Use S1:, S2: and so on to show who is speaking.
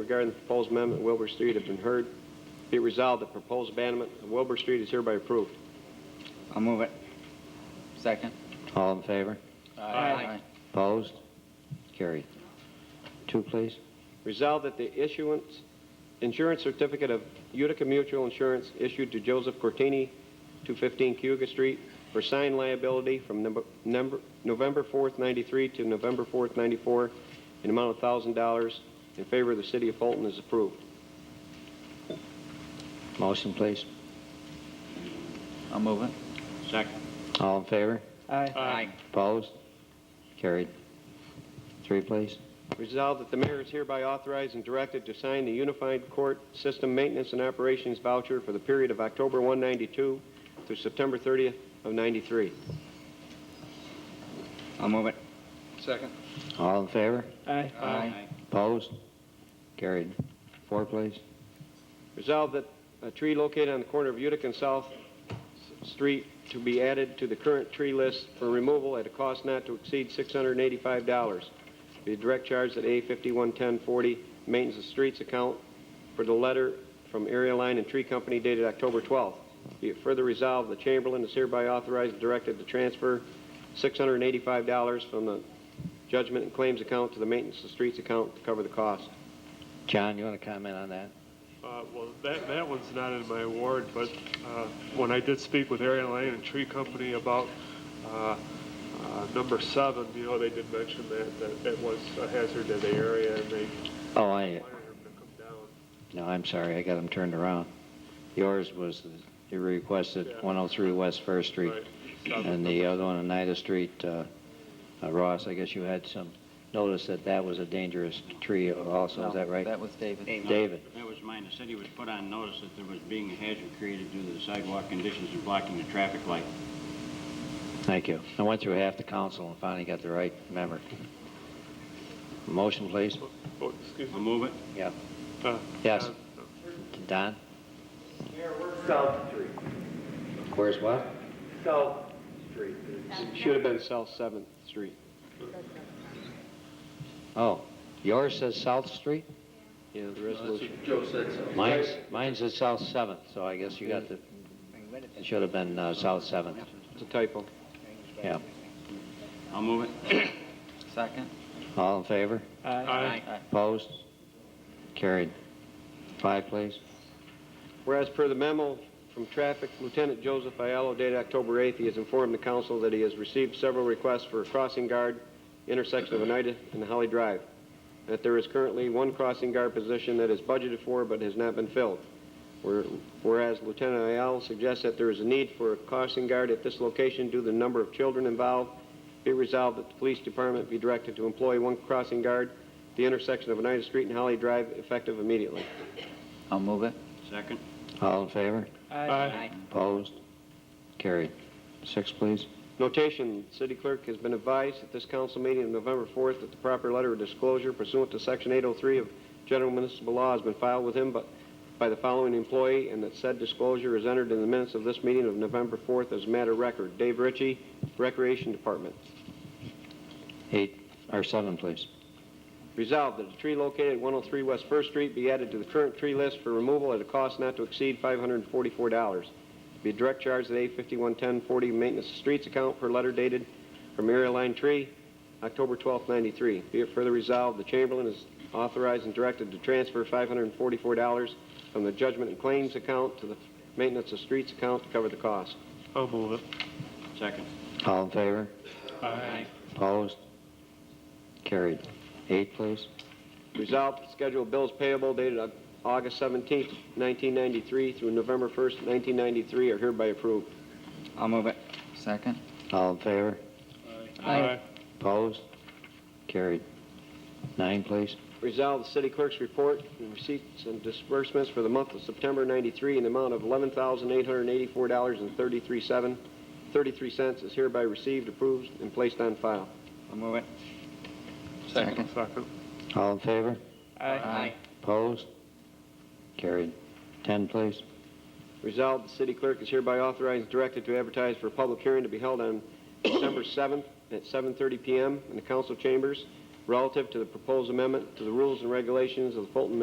S1: regarding the proposed amendment of Wilbur Street have been heard. Be it resolved, the proposed abandonment of Wilbur Street is hereby approved.
S2: I'll move it. Second.
S3: All in favor?
S2: Aye.
S3: Opposed? Carried. Two, please.
S1: Resolved that the issuance, insurance certificate of Utica Mutual Insurance issued to Joseph Cortini, 215 Cuga Street, for sign liability from number- number- November 4th, 93 to November 4th, 94, in amount of $1,000 in favor of the city of Fulton is approved.
S3: Motion, please.
S2: I'll move it.
S3: All in favor?
S2: Aye.
S3: Opposed? Carried. Three, please.
S1: Resolved that the mayor is hereby authorized and directed to sign the Unified Court System Maintenance and Operations Voucher for the period of October 192 through September 30th of 93.
S2: I'll move it.
S4: Second.
S3: All in favor?
S5: Aye.
S2: Aye.
S3: Opposed? Carried. Four, please.
S1: Resolved that a tree located on the corner of Utica and South S- Street to be added to the current tree list for removal at a cost not to exceed $685. Be direct charged at A 511040 Maintenance of Streets account for the letter from Area Line and Tree Company dated October 12th. Be it further resolved, the Chamberlain is hereby authorized and directed to transfer $685 from the Judgment and Claims account to the Maintenance of Streets account to cover the cost.
S3: John, you want to comment on that?
S6: Uh, Well, that, that one's not in my award, but uh, when I did speak with Area Lane and Tree Company about uh, uh, number seven, you know, they did mention that, that it was a hazard to the area, and they
S3: Oh, I,
S6: wanted him to come down.
S3: no, I'm sorry, I got them turned around. Yours was, the- you requested
S6: Yeah.
S3: 103 West First Street.
S6: Right.
S3: And the other one, Oneida Street, uh, uh, Ross, I guess you had some notice that that was a dangerous tree also, is that right?
S2: That was David.
S3: David.
S7: That was mine. The city was put on notice that there was being a hazard created due to the sidewalk conditions and blocking the traffic light.
S3: Thank you. I went through half the council and finally got the right member. Motion, please.
S6: Oh, excuse
S7: I'll
S6: me.
S7: move it.
S3: Yeah.
S6: Uh,
S3: Yes.
S6: uh,
S3: Don?
S4: South Street.
S3: Where's what?
S4: South Street.
S1: Should have been South 7th Street.
S3: Oh, yours says South Street?
S1: Yeah, the resolution.
S4: Joe said so.
S3: Mine's, mine says South Seventh, so I guess you got the, it should have been uh, South Seventh.
S1: It's a typo.
S3: Yeah.
S7: I'll move it.
S2: Second.
S3: All in favor?
S6: Aye.
S3: Opposed? Carried. Five, please.
S1: Whereas per the memo from traffic, Lieutenant Joseph Ayalo dated October 8th, he has informed the council that he has received several requests for a crossing guard intersection of Oneida and Holly Drive. That there is currently one crossing guard position that is budgeted for but has not been filled. Where- Whereas Lieutenant Ayalo suggests that there is a need for a crossing guard at this location due to the number of children involved, be resolved that the police department be directed to employ one crossing guard at the intersection of Oneida Street and Holly Drive effective immediately.
S2: I'll move it.
S7: Second.
S3: All in favor?
S6: Aye.
S3: Opposed? Carried. Six, please.
S1: Notation, city clerk has been advised at this council meeting of November 4th that the proper letter of disclosure pursuant to Section 803 of General Municipal Law has been filed with him but by the following employee, and that said disclosure is entered in the minutes of this meeting of November 4th as matter of record. Dave Ritchie, Recreation Department.
S3: Eight, or seven, please.
S1: Resolved that a tree located at 103 West First Street be added to the current tree list for removal at a cost not to exceed $544. Be direct charged at A 511040 Maintenance of Streets account per letter dated from Area Line Tree, October 12, 93. Be it further resolved, the Chamberlain is authorized and directed to transfer $544 from the Judgment and Claims account to the Maintenance of Streets account to cover the cost.
S6: I'll move it.
S7: Second.
S3: All in favor?
S6: Aye.
S3: Opposed? Carried. Eight, please.
S1: Resolved, to schedule bills payable dated Au- August 17, 1993 through November 1, 1993 are hereby approved.
S2: I'll move it. Second.
S3: All in favor?
S6: Aye.
S3: Opposed? Carried. Nine, please.
S1: Resolved, the city clerk's report and receipts and disbursements for the month of September 93 in the amount of $11,884.33 33 cents is hereby received, approved, and placed on file.
S2: I'll move it.
S6: Second. Second.
S3: All in favor?
S2: Aye.
S3: Opposed? Carried. Ten, please.
S1: Resolved, the city clerk is hereby authorized and directed to advertise for a public hearing to be held on December 7th at 7:30 PM in the council chambers relative to the proposed amendment to the rules and regulations of the Fulton